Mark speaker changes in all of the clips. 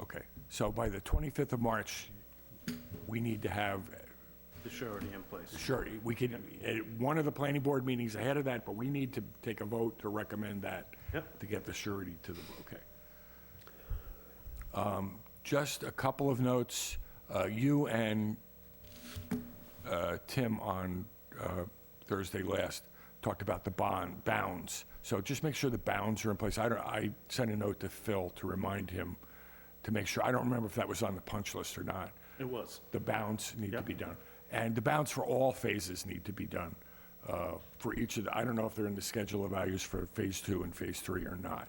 Speaker 1: Okay, so by the 25th of March, we need to have
Speaker 2: The surety in place.
Speaker 1: Sure, we can, at one of the planning board meetings ahead of that, but we need to take a vote to recommend that.
Speaker 2: Yep.
Speaker 1: To get the surety to the, okay. Um, Just a couple of notes, Uh, you and uh, Tim on uh, Thursday last talked about the bond, bounds. So just make sure the bounds are in place. I don't, I sent a note to Phil to remind him to make sure, I don't remember if that was on the punch list or not
Speaker 2: It was.
Speaker 1: the bounds need to
Speaker 2: Yep.
Speaker 1: be done. And the bounds for all phases need to be done uh, for each of the, I don't know if they're in the schedule of values for phase two and phase three or not.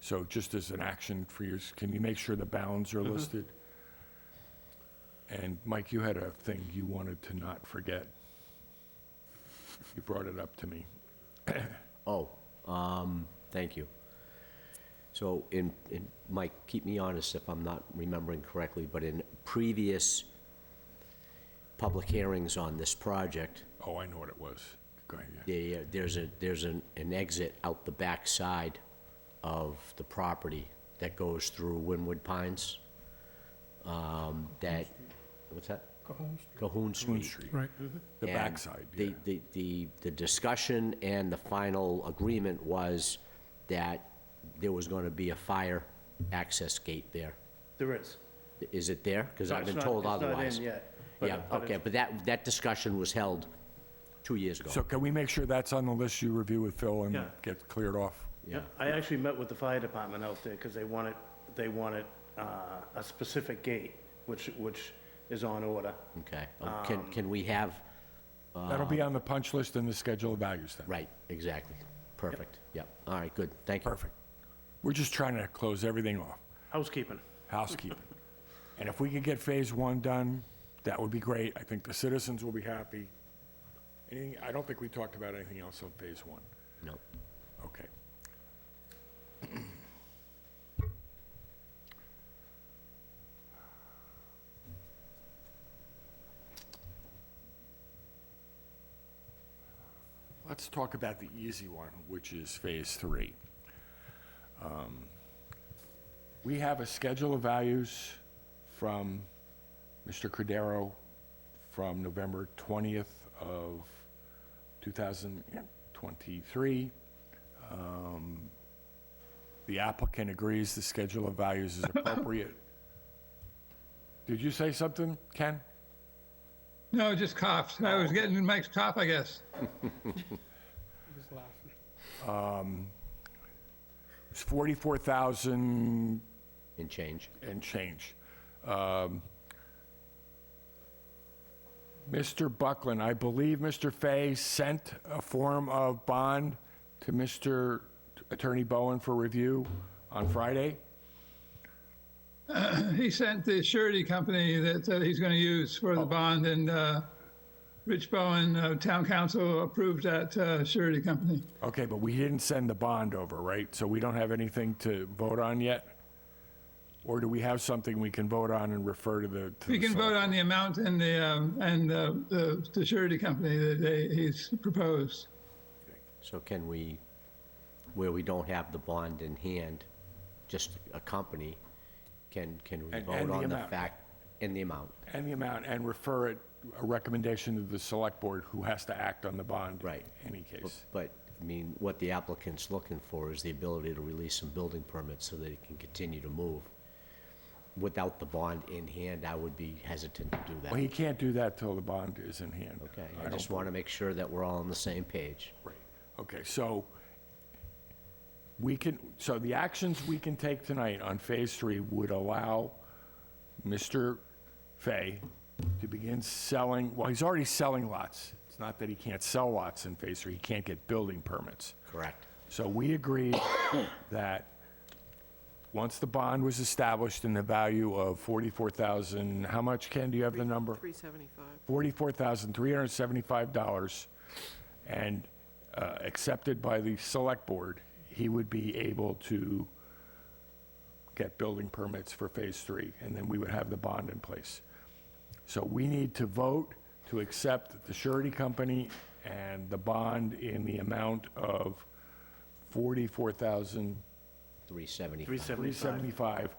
Speaker 1: So just as an action for you, can you make sure the bounds are listed? And Mike, you had a thing you wanted to not forget. You brought it up to me.
Speaker 3: Oh, um, thank you. So in, in, Mike, keep me honest if I'm not remembering correctly, but in previous public hearings on this project,
Speaker 1: Oh, I know what it was. Go ahead, yeah.
Speaker 3: there, there's a, there's an, an exit out the back side of the property that goes through Winwood Pines. Um, that, what's that? Cahoon Street.
Speaker 1: Moon Street. Right. The
Speaker 3: And
Speaker 1: backside, yeah.
Speaker 3: The, the, the, the discussion and the final agreement was that there was gonna be a fire access gate there.
Speaker 2: There is.
Speaker 3: Is it there? Because I've
Speaker 2: It's
Speaker 3: been
Speaker 2: not-
Speaker 3: told
Speaker 2: It's
Speaker 3: otherwise.
Speaker 2: not in yet. but-
Speaker 3: Yeah,
Speaker 2: but
Speaker 3: okay,
Speaker 2: it's-
Speaker 3: but that, that discussion was held two years ago.
Speaker 1: So can we make sure that's on the list you review with Phil and
Speaker 2: Yeah.
Speaker 1: get cleared off?
Speaker 2: Yeah, I actually met with the fire department out there because they wanted, they wanted uh, a specific gate, which, which is on order.
Speaker 3: Okay, Um, can, can we have,
Speaker 1: That'll be on the punch list and the schedule of values then.
Speaker 3: right, exactly, perfect, yep, all right, good, thank you.
Speaker 1: Perfect. We're just trying to close everything off,
Speaker 2: Housekeeping.
Speaker 1: housekeeping. And if we could get phase one done, that would be great. I think the citizens will be happy. Anything, I don't think we talked about anything else on phase one.
Speaker 3: No,
Speaker 1: Okay. Let's talk about the easy one, which is Phase 3. Um, We have a schedule of values from Mr. Cordero from November 20th of 2023. The applicant agrees the schedule of values is appropriate. Did you say something, Ken?
Speaker 4: No, just coughs. I was getting in Mike's cough, I guess.
Speaker 1: It's 44,000
Speaker 3: and change,
Speaker 1: and change. Um, Mr. Buckland, I believe Mr. Fay sent a form of bond to Mr. Attorney Bowen for review on Friday.
Speaker 4: He sent the surety company that, that he's going to use for the bond, and uh, Rich Bowen, uh, town council, approved that uh, surety company.
Speaker 1: Okay, but we didn't send the bond over, right? So we don't have anything to vote on yet? Or do we have something we can vote on and refer to the? to
Speaker 4: We
Speaker 1: the
Speaker 4: can
Speaker 1: select-
Speaker 4: vote on the amount and the um, and uh, the, the surety company that they, he's proposed.
Speaker 3: so can we, where we don't have the bond in hand, just a company, can, can we
Speaker 1: And-
Speaker 3: vote
Speaker 1: and the
Speaker 3: on the
Speaker 1: amount.
Speaker 3: fact, and the amount?
Speaker 1: And the amount, and refer it, a recommendation to the select board who has to act on the bond.
Speaker 3: Right.
Speaker 1: In any
Speaker 3: But-
Speaker 1: case.
Speaker 3: But, I mean, what the applicant's looking for is the ability to release some building permits so that it can continue to move. Without the bond in hand, I would be hesitant to do
Speaker 1: Well, he
Speaker 3: that.
Speaker 1: can't do that till the bond is in hand.
Speaker 3: Okay,
Speaker 1: I
Speaker 3: I
Speaker 1: don't
Speaker 3: just want to make sure that we're all on the same page.
Speaker 1: Right, okay, so we can, so the actions we can take tonight on Phase 3 would allow Mr. Fay to begin selling, well, he's already selling lots. It's not that he can't sell lots in Phase 3, he can't get building permits.
Speaker 3: Correct.
Speaker 1: So we agreed that once the bond was established in the value of 44,000, how much, Ken, do you have the number?
Speaker 5: 375.
Speaker 1: $44,375 and uh, accepted by the select board, he would be able to get building permits for phase three, and then we would have the bond in place. So we need to vote to accept the surety company and the bond in the amount of $44,375.
Speaker 3: 375.
Speaker 2: 375.